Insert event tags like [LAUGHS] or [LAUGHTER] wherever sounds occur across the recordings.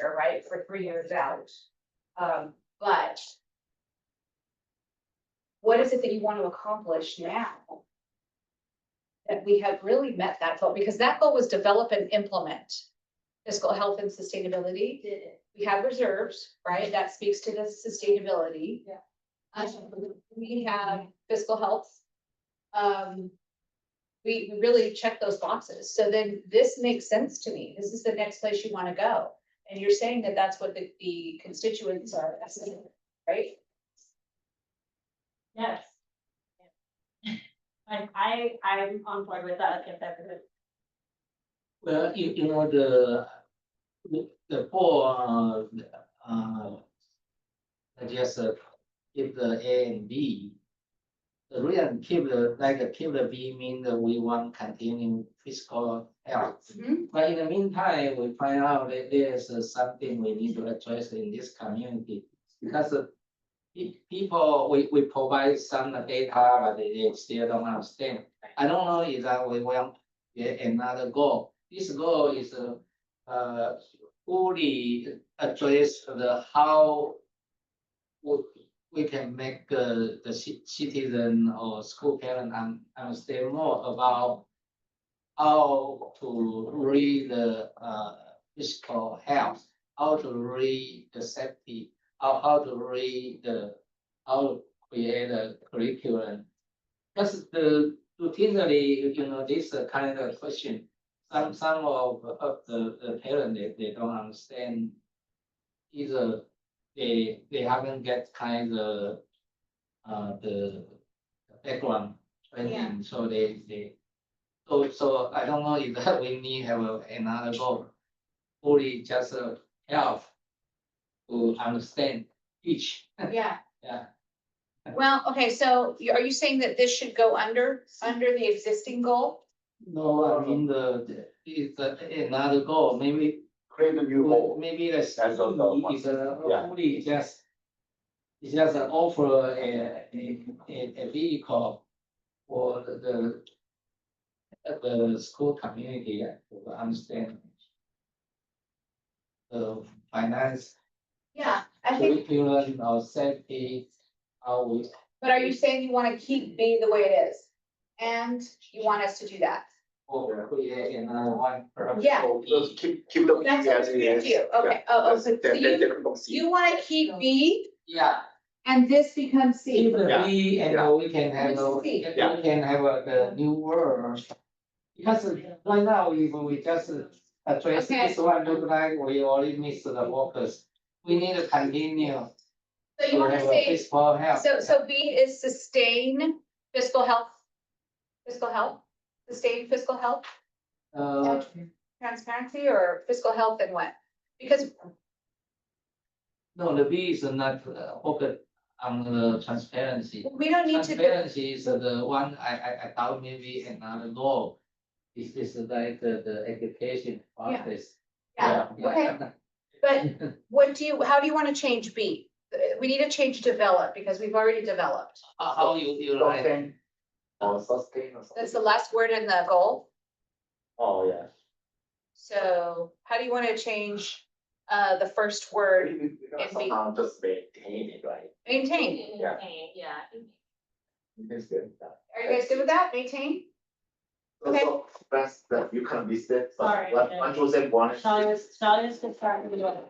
year, right, for three years out. Um, but what is it that you want to accomplish now? That we have really met that goal, because that goal was develop and implement fiscal health and sustainability. did it. We have reserves, right? That speaks to the sustainability. Yeah. Um, we have fiscal health. Um, we we really check those boxes. So then this makes sense to me. This is the next place you want to go. And you're saying that that's what the, the constituents are, asking, right? Yes. Like, I, I'm on board with that, if that was. Well, you, you know, the, the, the poor, uh, uh, I just uh, keep the A and B. The reason keep the, like, keep the B mean that we want continuing fiscal health. But in the meantime, we find out that there's uh, something we need to address in this community. Because uh, pe- people, we, we provide some data, but they they still don't understand. I don't know if that we want yet another goal. This goal is uh, uh, fully address the how we, we can make uh, the ci- citizen or school parent un- understand more about how to read the uh, physical health, how to read the safety, how, how to read the, how to create a curriculum. Because the routinely, you know, this uh, kind of question, some, some of, of the, the parent, they, they don't understand. Either they, they haven't get kind of, uh, the background training, so they, they. So, so I don't know if that we need have a- another goal, only just uh, help to understand each, Yeah, yeah. well, okay, so you- are you saying that this should go under, under the existing goal? No, I mean, the, the- it's uh, another goal, maybe create a new Well, goal. Maybe that's. That's a lot of It's a, Yeah. only it's just. It's just an offer, uh, a, a, a a vehicle for the. The school community to understand. The finance, Yeah, I think, curriculum, our safety, how we, but are you saying you want to keep B the way it is? And you want us to do that? or oh, create another one. perhaps Yeah. for Just each. keep, keep the. That's what we're gonna do, okay, oh, oh, so so you, you want to keep B Yeah, and this becomes C? If the Yeah, we and yeah. uh, we can have, a- Let's see. we Yeah. can have a- the new world. Because uh, right now, we, we just uh, address Okay. this one, look like we already missed the workers. We need to continue So you to want to have a say, peaceful health. so, so B is sustain fiscal health? Fiscal health, sustain fiscal health? Uh, transparency or fiscal health and what? Because, no, the B is not uh, focused on the transparency. we don't need to, do- Transparency is the one I, I, I thought maybe another goal. Is this like the, the education process? yeah, okay, but [LAUGHS] what do you, how do you wanna change B? Uh, We need to change develop, because we've already developed, How, how you, you like? Uh, Or sustain or something. that's the last word in the goal, Oh, yeah. so how do you wanna change uh the first word, We- we- we gotta And we- Somehow just maintain it, right? maintain? Yeah. Yeah. It's good. yeah. Are you guys good with that, maintain? So- Okay. so That's, that you can miss it, but Sorry, what, yeah. what Joseph wanted, Shall I, shall I just start with what?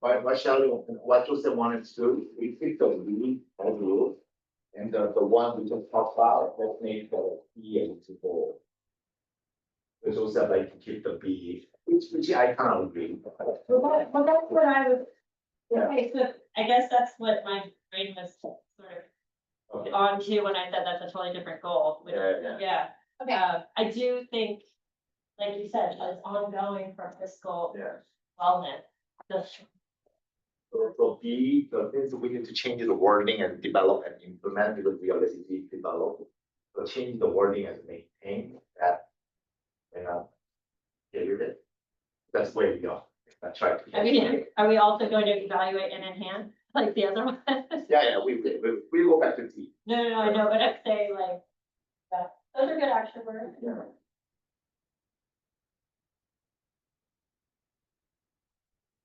what, what shall, what Joseph wanted to do, we pick the lead, and rule. And uh, the, the one we just talked about, that made the B and to go. It's also like to keep the B, which, which I kind of agree. Well, that- well, that's what I was. Yeah. Okay, so I guess that's what my brain was sort Okay. of on to when I said that's a totally different goal, which, Yeah, yeah. yeah. Okay. Uh, I do think, like you said, it's ongoing for fiscal Yeah. wellness. That's So so B, the things we need to change the wording and develop and implement because we already did develop. So change the wording and maintain that. And uh. Get rid of it. That's where we go. That's right. I mean, are we also going to evaluate and enhance like the other [LAUGHS] one? No, Yeah, yeah, we we we we go back to T. no, no, I know, but I'd say like, that- those are good action words. Yeah.